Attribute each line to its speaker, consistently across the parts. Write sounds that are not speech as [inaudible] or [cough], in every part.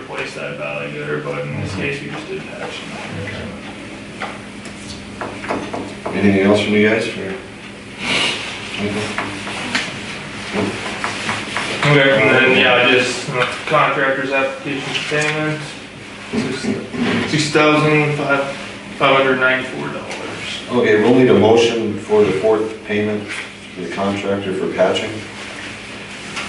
Speaker 1: replace that valley gutter, but in this case, we just did an action.
Speaker 2: Anything else from you guys or? Anything?
Speaker 1: Okay, and then, yeah, just uh, contractor's application for payment, six thousand five, five hundred ninety-four dollars.
Speaker 2: Okay, we'll need a motion for the fourth payment to the contractor for patching.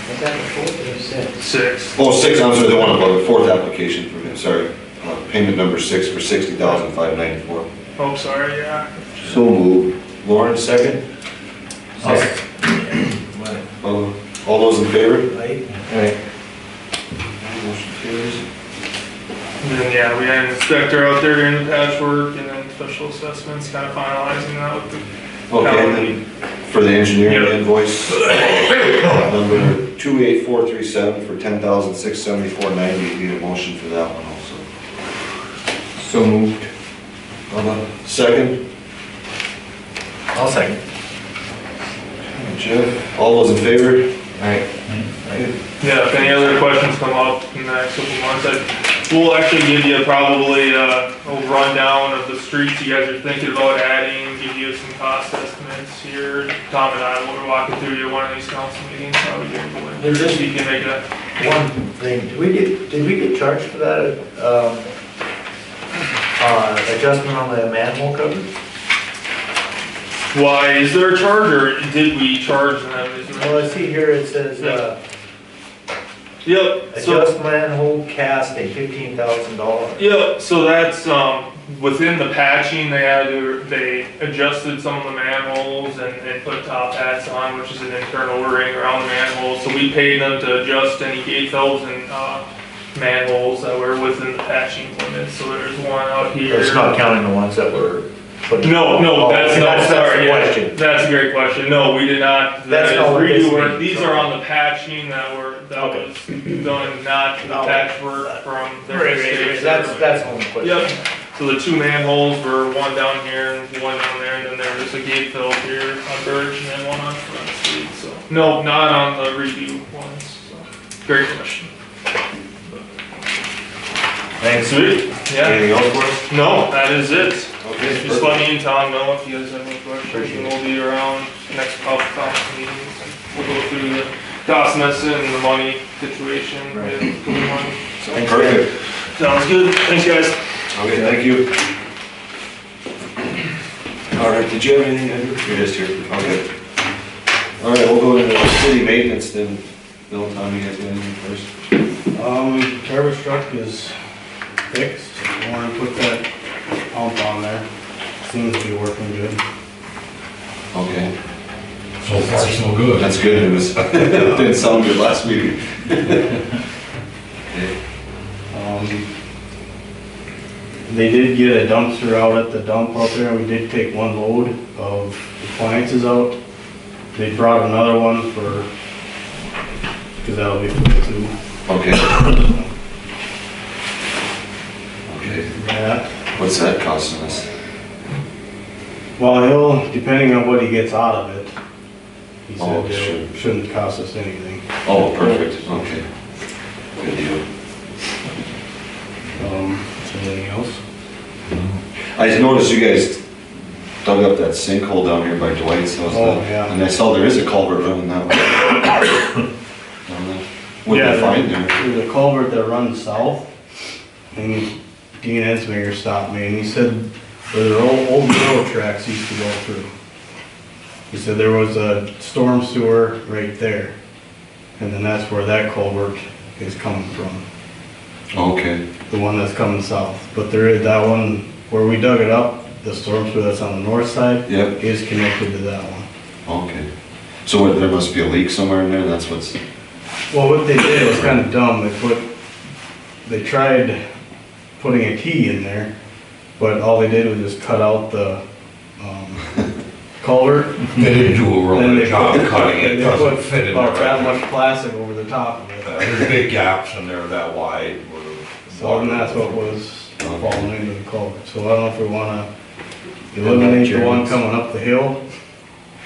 Speaker 3: Is that the fourth or the sixth?
Speaker 1: Six.
Speaker 2: Oh, six, I'm sorry, the one above, the fourth application for him, sorry. Uh, Payment number six for sixty thousand five ninety-four.
Speaker 1: Oh, sorry, yeah.
Speaker 2: So moved. Lauren, second. All all those in favor? Motion carries.
Speaker 1: And then, yeah, we had an inspector out there doing the patchwork and then special assessments, kind of finalizing that with the.
Speaker 2: Okay, and then for the engineering
Speaker 1: Yeah. [laughs]
Speaker 2: invoice, number two eight four three seven for ten thousand six seventy-four ninety, need a motion for that one also.
Speaker 4: So moved.
Speaker 2: Bubba, second,
Speaker 4: I'll second.
Speaker 2: Jeff, all those in favor?
Speaker 4: Alright.
Speaker 1: Yeah, if any other questions come up in the next couple months, I, we'll actually give you probably, uh, a rundown of the streets you guys are thinking about adding, give you some cost estimates here. Tom and I will walk you through your one of these council meetings, how we do it.
Speaker 3: There is-
Speaker 1: You can make that,
Speaker 3: One thing, did we get, did we get charged for that, um, uh, adjustment on the manhole cover?
Speaker 1: why, is there a charge or did we charge them? Is there-
Speaker 3: Well, I see here it says, uh,
Speaker 1: Yep, so.
Speaker 3: adjust manhole casting, fifteen thousand dollars.
Speaker 1: Yeah, so that's, um, within the patching, they had, to- they adjusted some of the manholes and, and put top hats on, which is an internal ring around the manholes. So we paid them to adjust any eight thousand, uh, manholes that were within the patching limits. So there's one out here.
Speaker 3: It's not counting the ones that were. put-
Speaker 1: No, no,
Speaker 3: Oh,
Speaker 1: that's
Speaker 3: okay,
Speaker 1: not,
Speaker 3: that's- that's the
Speaker 1: sorry, yeah,
Speaker 3: question.
Speaker 1: that's a great question, no, we did not, that
Speaker 3: That's
Speaker 1: is
Speaker 3: not what this
Speaker 1: redo work,
Speaker 3: means.
Speaker 1: these are on the patching that were, that
Speaker 3: Okay.
Speaker 1: was done, not the
Speaker 3: No.
Speaker 1: patchwork from
Speaker 3: Right,
Speaker 1: their
Speaker 3: right,
Speaker 1: mistakes.
Speaker 3: right, That's, that's the only question.
Speaker 1: Yep, so the two manholes were one down here and one down there, and then there was a gate filled here on Birch and then one on Front Street, so. No, not on the redo ones, so, great question.
Speaker 2: Thanks.
Speaker 1: Sweet, yeah,
Speaker 2: Anything else for us?
Speaker 1: no, that is it.
Speaker 2: Okay.
Speaker 1: Just let me and Tom know if you guys have any questions,
Speaker 2: Appreciate
Speaker 1: and
Speaker 2: it.
Speaker 1: we'll be around next couple of council meetings. We'll go through the DOS Messon and the money situation.
Speaker 2: Right.
Speaker 1: and the money.
Speaker 2: Perfect,
Speaker 1: Sounds good, thanks guys.
Speaker 2: okay, thank you. All right, did you have anything, Andrew? You're just here, okay. All right, we'll go to the city maintenance then, Bill, Tom, you guys got anything first?
Speaker 5: Um, garbage truck is fixed, I wanna put that pump on there, seems to be working good.
Speaker 2: Okay,
Speaker 6: So far, so good.
Speaker 2: that's good [laughs] news. Didn't sound good last meeting.
Speaker 5: Um, They did get a dumpster out at the dump out there, we did take one load of appliances out. They brought another one for, cause that'll be for the two.
Speaker 2: Okay. Okay,
Speaker 5: Yeah.
Speaker 2: what's that costing us?
Speaker 5: Well, he'll, depending on what he gets out of it, he
Speaker 2: Oh,
Speaker 5: said
Speaker 2: sure.
Speaker 5: it shouldn't cost us anything.
Speaker 2: Oh, perfect, okay. Good deal.
Speaker 5: Um, is there anything else?
Speaker 2: I just noticed you guys dug up that sinkhole down here by Dwight's house.
Speaker 5: Oh, yeah.
Speaker 2: And I saw there is a culvert running that way. [coughs] Down there. What did
Speaker 5: Yeah,
Speaker 2: you find there?
Speaker 5: There's a culvert that runs south, and Dean Ensminger stopped me, and he said, where the old, old railroad tracks used to go through. He said there was a storm sewer right there, and then that's where that culvert is coming from,
Speaker 2: Okay,
Speaker 5: the one that's coming south. But there is, that one, where we dug it up, the storm sewer that's on the north side
Speaker 2: yep,
Speaker 5: is connected to that one.
Speaker 2: okay. So what, there must be a leak somewhere in there, that's what's,
Speaker 5: Well, what they did was kind of dumb, they put, they tried putting a key in there, but all they did was just cut out the, um,
Speaker 6: [laughs]
Speaker 5: culvert.
Speaker 6: They didn't do a
Speaker 5: Then
Speaker 6: real
Speaker 5: they
Speaker 6: good job
Speaker 5: put-
Speaker 6: cutting it,
Speaker 5: [laughs] they
Speaker 6: doesn't
Speaker 5: put
Speaker 6: fit in
Speaker 5: About that
Speaker 6: there.
Speaker 5: much plastic over the top of it,
Speaker 6: There's big gaps in there that wide. where
Speaker 5: so and
Speaker 6: water-
Speaker 5: that's what was falling into the culvert, so I don't know if we wanna eliminate the one coming up the hill,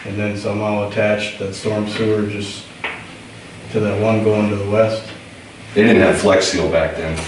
Speaker 5: and then somehow attach that storm sewer just to that one going to the west.
Speaker 2: they didn't have flex seal back then.